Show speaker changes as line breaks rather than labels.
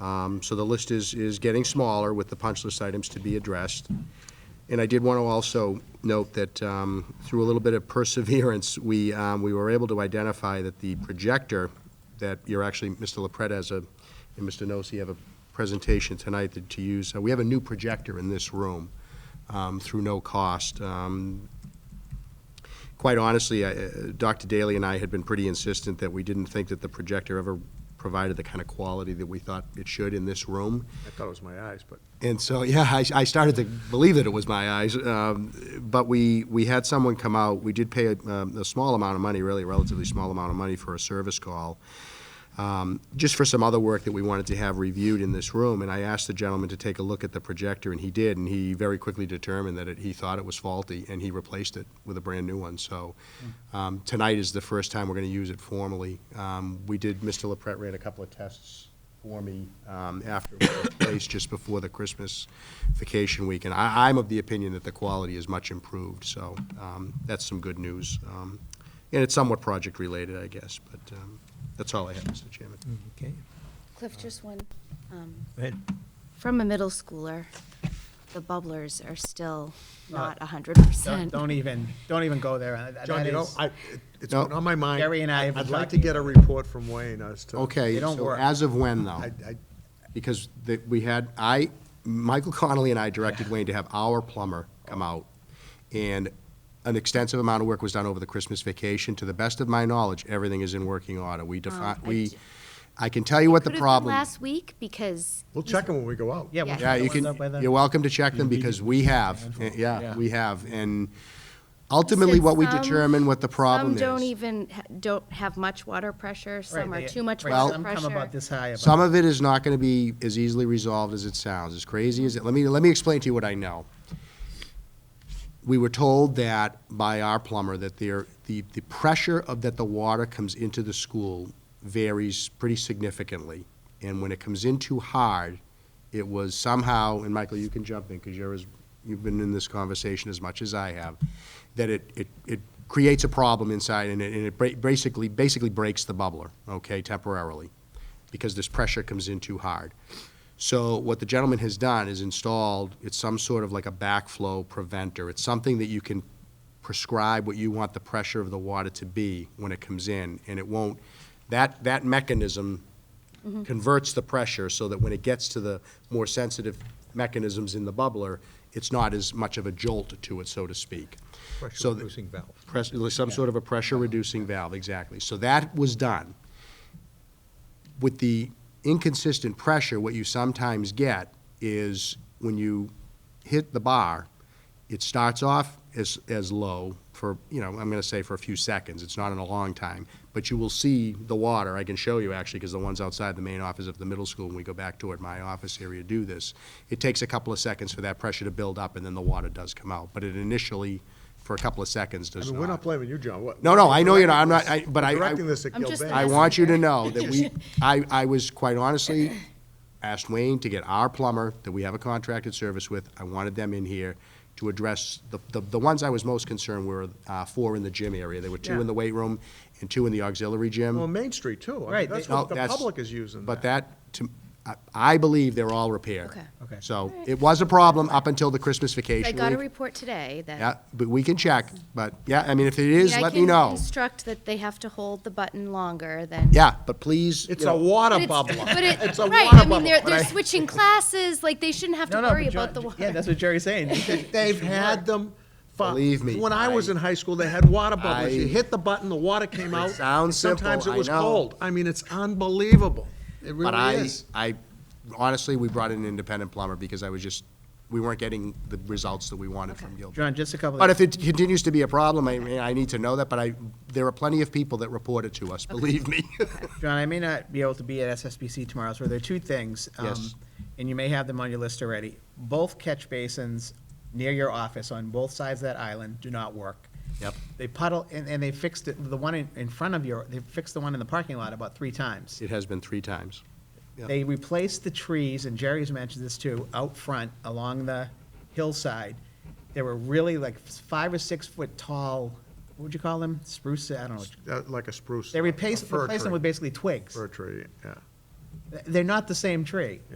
Um, So the list is, is getting smaller with the punch list items to be addressed. And I did want to also note that um, through a little bit of perseverance, we, um, we were able to identify that the projector that you're actually, Mr. LaPretta has a, and Mr. Nosy have a presentation tonight that to use. Uh, We have a new projector in this room um, through no cost. Um, quite honestly, I- uh, Dr. Daly and I had been pretty insistent that we didn't think that the projector ever provided the kind of quality that we thought it should in this room.
I thought it was my eyes, but
And so, yeah, I, I started to believe that it was my eyes. Um, but we, we had someone come out. We did pay a, um, a small amount of money, really, a relatively small amount of money for a service call, um, just for some other work that we wanted to have reviewed in this room. And I asked the gentleman to take a look at the projector, and he did. And he very quickly determined that it, he thought it was faulty, and he replaced it with a brand new one. So um, tonight is the first time we're going to use it formally. Um, we did, Mr. LaPret ran a couple of tests for me um, after it was placed just before the Christmas vacation week. And I, I'm of the opinion that the quality is much improved, so um, that's some good news. Um, And it's somewhat project-related, I guess, but um, that's all I have, Mr. Chairman.
Mm-hmm.
Okay,
Cliff, just one. um,
go ahead.
From a middle schooler, the bubblers are still not a hundred
Don't-
percent.
Don't even, don't even go there. That-
John,
that
you know,
is-
I, it- it's
No.
been on my mind.
Gary and I have been
I'd like to
talking
get a
about
report from Wayne as to.
Okay,
They don't
so
work.
as of when, though?
I, I,
Because the- we had, I, Michael Connolly and I directed Wayne to have our plumber come out. And an extensive amount of work was done over the Christmas vacation. To the best of my knowledge, everything is in working order.
Oh,
We define,
I
we,
ju-
I can tell you what the
Could've been
problem.
Last week, because.
we'll check them when we go out.
Yeah, we'll
Yeah.
Yeah,
check
you
the ones up by
can,
the-
you're welcome to check them because we have, eh, yeah, we have. And ultimately, what we
Some-
determine what the problem
Some don't
is.
even, ha- don't have much water pressure, some
Right,
are
they-
too much
right,
water
Some
pressure.
come about this high. about-
Some of it is not gonna be as easily resolved as it sounds, as crazy as it, let me, let me explain to you what I know. We were told that by our plumber that there, the, the pressure of, that the water comes into the school varies pretty significantly. And when it comes in too hard, it was somehow, and Michael, you can jump in, because you're as, you've been in this conversation as much as I have, that it, it, it creates a problem inside and it, and it ba- basically, basically breaks the bubbler, okay, temporarily, because this pressure comes in too hard. So what the gentleman has done is installed, it's some sort of like a backflow preventer. It's something that you can prescribe what you want the pressure of the water to be when it comes in, and it won't, that, that mechanism converts the pressure so that when it gets to the more sensitive mechanisms in the bubbler, it's not as much of a jolt to it, so to speak. So th-
Pressure-reducing valve.
press- some sort of a pressure-reducing valve, exactly. So that was done. With the inconsistent pressure, what you sometimes get is when you hit the bar, it starts off as, as low for, you know, I'm gonna say for a few seconds, it's not in a long time, but you will see the water, I can show you actually, because the ones outside the main office of the middle school, when we go back toward my office area, do this. It takes a couple of seconds for that pressure to build up, and then the water does come out, but it initially, for a couple of seconds,
I
does
mean,
not.
we're not blaming you, John. What-
No, no, I know you're not. I'm
directing
not-
this-
I- but I-
Directing
I-
this at
I'm just
Gilbane.
I want you to know that we, I, I was, quite honestly, asked Wayne to get our plumber that we have a contracted service with, I wanted them in here to address, the, the, the ones I was most concerned were, uh, four in the gym area. There were two in the weight room and two in the auxiliary gym.
Well, Main Street too. I mean,
Right,
That's
they-
No,
what the
that's-
public is using.
But that, to, I, I believe they're all repaired.
Okay.
Okay.
So, it was a problem up until the Christmas vacation
I
week.
got a report today that.
Yeah, but we can check, but, yeah, I mean, if it
I mean,
is,
I
let me
can
know.
Instruct that they have to hold the button longer than.
Yeah, but please.
It's
you
a
know-
water
But it's-
bubbler.
But it,
It's a
right,
water
I mean,
bubble,
they're,
but I-
they're switching classes, like, they shouldn't have to
No, no, but
worry about the
John-
water.
Yeah, that's what Jerry's saying. You should-
They've had them. for-
Believe me,
When I was
I-
in high school, they had water bubblers.
I-
You hit the button, the water came out.
sounds simple,
Sometimes
I
it was
know.
cold. I mean, it's unbelievable. It
But
really
I,
is.
I, honestly, we brought in an independent plumber because I was just, we weren't getting the results that we wanted from Gilbert.
John, just a couple.
But if it continues to be a problem, I, mean, I need to know that, but I, there are plenty of people that report it to us, believe me.
John, I may not be able to be at SSBC tomorrow, so there are two things. um,
Yes.
And you may have them on your list already. Both catch basins near your office on both sides of that island do not work.
Yep.
They puddle, and, and they fixed it, the one in, in front of your, they fixed the one in the parking lot about three times.
It has been three times. Yeah.
They replaced the trees, and Jerry's mentioned this too, out front along the hillside. There were really like five or six foot tall, what would you call them? Spruce, I don't know.
Uh, Like a spruce.
They
a
replaced,
fir
replaced them
tree.
with basically twigs.
Fir tree, yeah.
They're not the same tree.